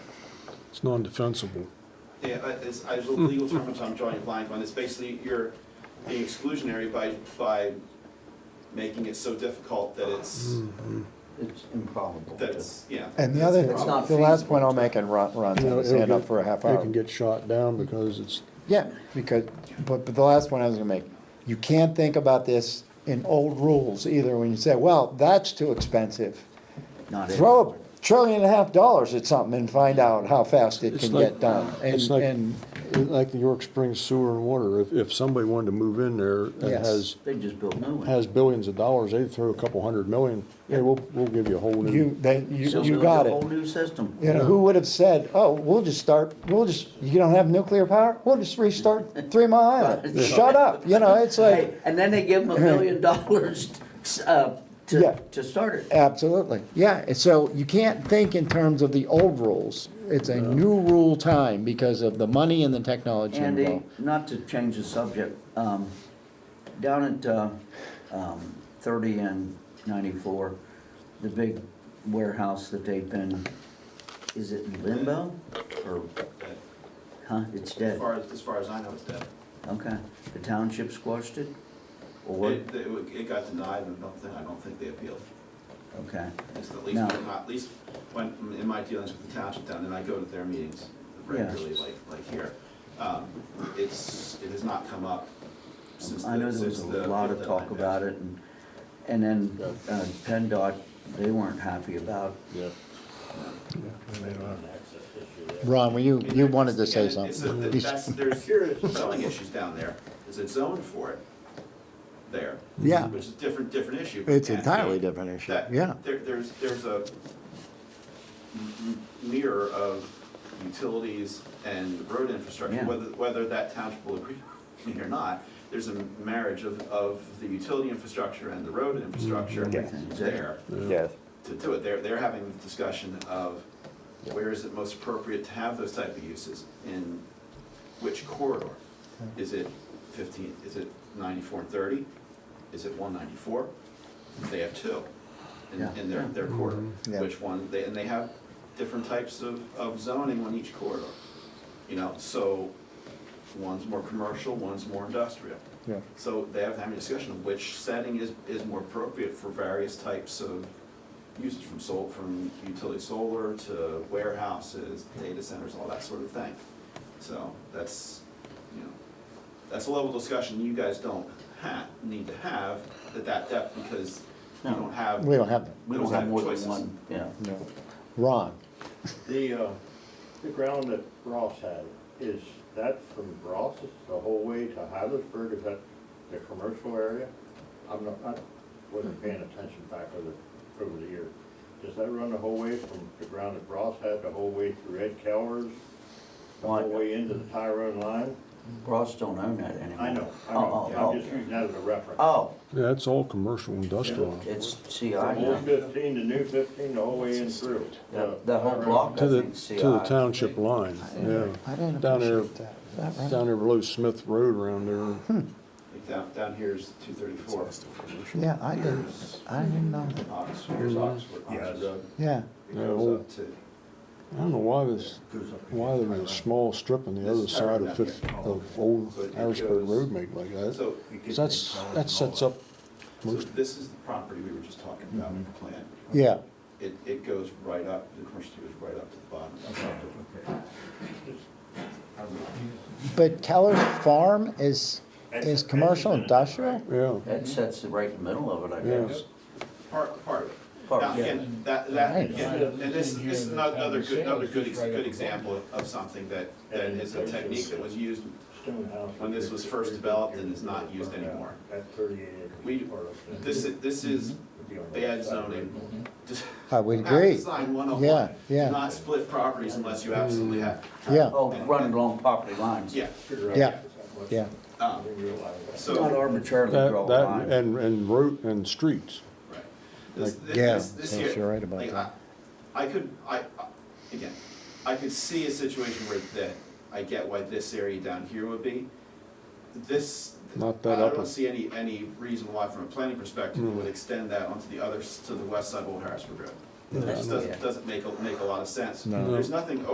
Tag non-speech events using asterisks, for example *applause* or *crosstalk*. It's non-defensible. Yeah, I- it's, I, the legal term I'm drawing a blind on, it's basically you're being exclusionary by, by making it so difficult that it's, It's improbable. that it's, yeah. And the that's other, It's not the last point I'll feasible. make, and Ron, Ron's You know, had his it'll hand up get- for a half They hour. can get shot down because it's, Yeah, because, but, but the last point I was gonna make, you can't think about this in old rules either, when you say, well, that's too expensive. Not it. Throw a trillion and a half dollars at something and find out how fast it It's can like- get done. And, it's like, and, like the York Springs sewer and water. If, if somebody wanted to move in there and Yes. has, They just built new ones. has billions of dollars, they'd throw a couple hundred million, yeah, we'll, we'll give you a whole new. you, they, you, So you build got a Whole it. new system. You know, who would have said, oh, we'll just start, we'll just, you don't have nuclear power? We'll just restart Three Mile *laughs* Island. Shut up, you know, it's like, Hey, and then they give them a million dollars, *laughs* uh, Yeah. to, to start it. Absolutely, yeah, and so you can't think in terms of the old rules. It's a new rule time because of the money and the technology Andy, involved. not to change the subject, um, down at, uh, um, thirty and ninety-four, the big warehouse that they've been, is it in limbo? Or, that- huh, it's As dead, far as, as far as I know, it's dead. okay. The township squashed it? Or, It, it it got denied, and I don't think, I don't think they appealed. okay, It's the least, No. at least when, in my dealings with the township down, and I go to their meetings regularly, like, like here. um, It's, it has not come up since the, I know there since was a the lot of appeal talk deadline. about it and, and then, uh, PennDOT, they weren't happy about Ron, were you, you wanted to Yeah, say it- it's a- something? That's, there's zoning issues down there, is it zoned for it there? Yeah. Which is a different, different issue. It's And, entirely you know, different issue, that- yeah. There, there's, there's a m- m- mirror of utilities and road infrastructure, Yeah. whether, whether that township will agree with me or not, there's a marriage of, of the utility infrastructure and the road infrastructure Yes. Mm-hmm. there Yes. to do it. They're, they're having the discussion of where is it most appropriate to have those type of uses, in which corridor? Is it fifteen, is it ninety-four and thirty? Is it one ninety-four? They have two in, Yeah. in their, their corridor. Yeah. Which one, they, and they have different types of, of zoning on each corridor, you know, so one's more commercial, one's more industrial. Yeah. So they have having a discussion of which setting is, is more appropriate for various types of uses from sol, from utility solar to warehouses, data centers, all that sort of thing. So that's, you know, that's a level of discussion you guys don't ha, need to have at that depth because you No. don't have. We don't have that, We We don't don't have have more than choices. one, yeah. no. Ron, The, uh, the ground that Ross had, is that from Ross the whole way to Heidelberg, is that the commercial area? I'm not, I wasn't paying attention back over, the- over the year. Does that run the whole way from the ground that Ross had, the whole way through Ed Cowers? The whole Why- way into the Tyrone line? Ross don't own that anymore. I know, I Oh, know, oh, I'm just using that as a reference. oh, Yeah, it's all commercial industrial. oh, it's CI From now. old fifteen to new fifteen, the whole way in through. The- uh, the whole Tyrone. block. To the, I think CI. to the township line, yeah. I didn't Down there. appreciate that. Is that right? Down there below Smith Road around there. Like Down, down here's two thirty-four. Yeah, I didn't, Here's I didn't know that, Oxford, here's Oxford. Yeah, Oxford. the- yeah. It goes up to. I don't know why this, why there was a small strip on the other side of Fifth, of Old Harrisburg Road made like that. So, So That's, that sets up so this is the property we were just talking about in the Mm-hmm. plan. Yeah, It, it goes right up, the commercial goes right up to the bottom. but Keller's Farm is, Ed's- is Ed's commercial in it, industrial? right? Yeah, That sets it right in the middle of it, I Yeah. guess. Part, part of it. Part, Now, yeah. again, that, that, Right. again, and this, this is another another good, another good, ex- good example of- of something that, that is a technique that was used. Stone house. When this was first developed and is not used anymore. That thirty-eight acre. We, part of it. this, is- this is Would be on the bad west side of Red Bull. zoning. Just- I would not agree. Design one oh Yeah, one. yeah. Mm. Do not split properties unless you absolutely have. to. Yeah, Oh, running along property lines. Yeah, Figure out Yeah. if it's that much. yeah. um, I didn't realize that. so. Not arbitrarily draw that, a that, line. and, and road, and streets. Right. This- Like, this- yeah, this- this yes, year- you're right about like, that. I I could, I, I- again, I could see a situation where that, I get why this area down here would be. This, Not I that upper. Mm. don't see any, any reason why from a planning perspective, it would extend that onto the other, s- to the west side of Old Harrisburg Road. It just doesn't, doesn't make, a- make a lot of sense. No. There's nothing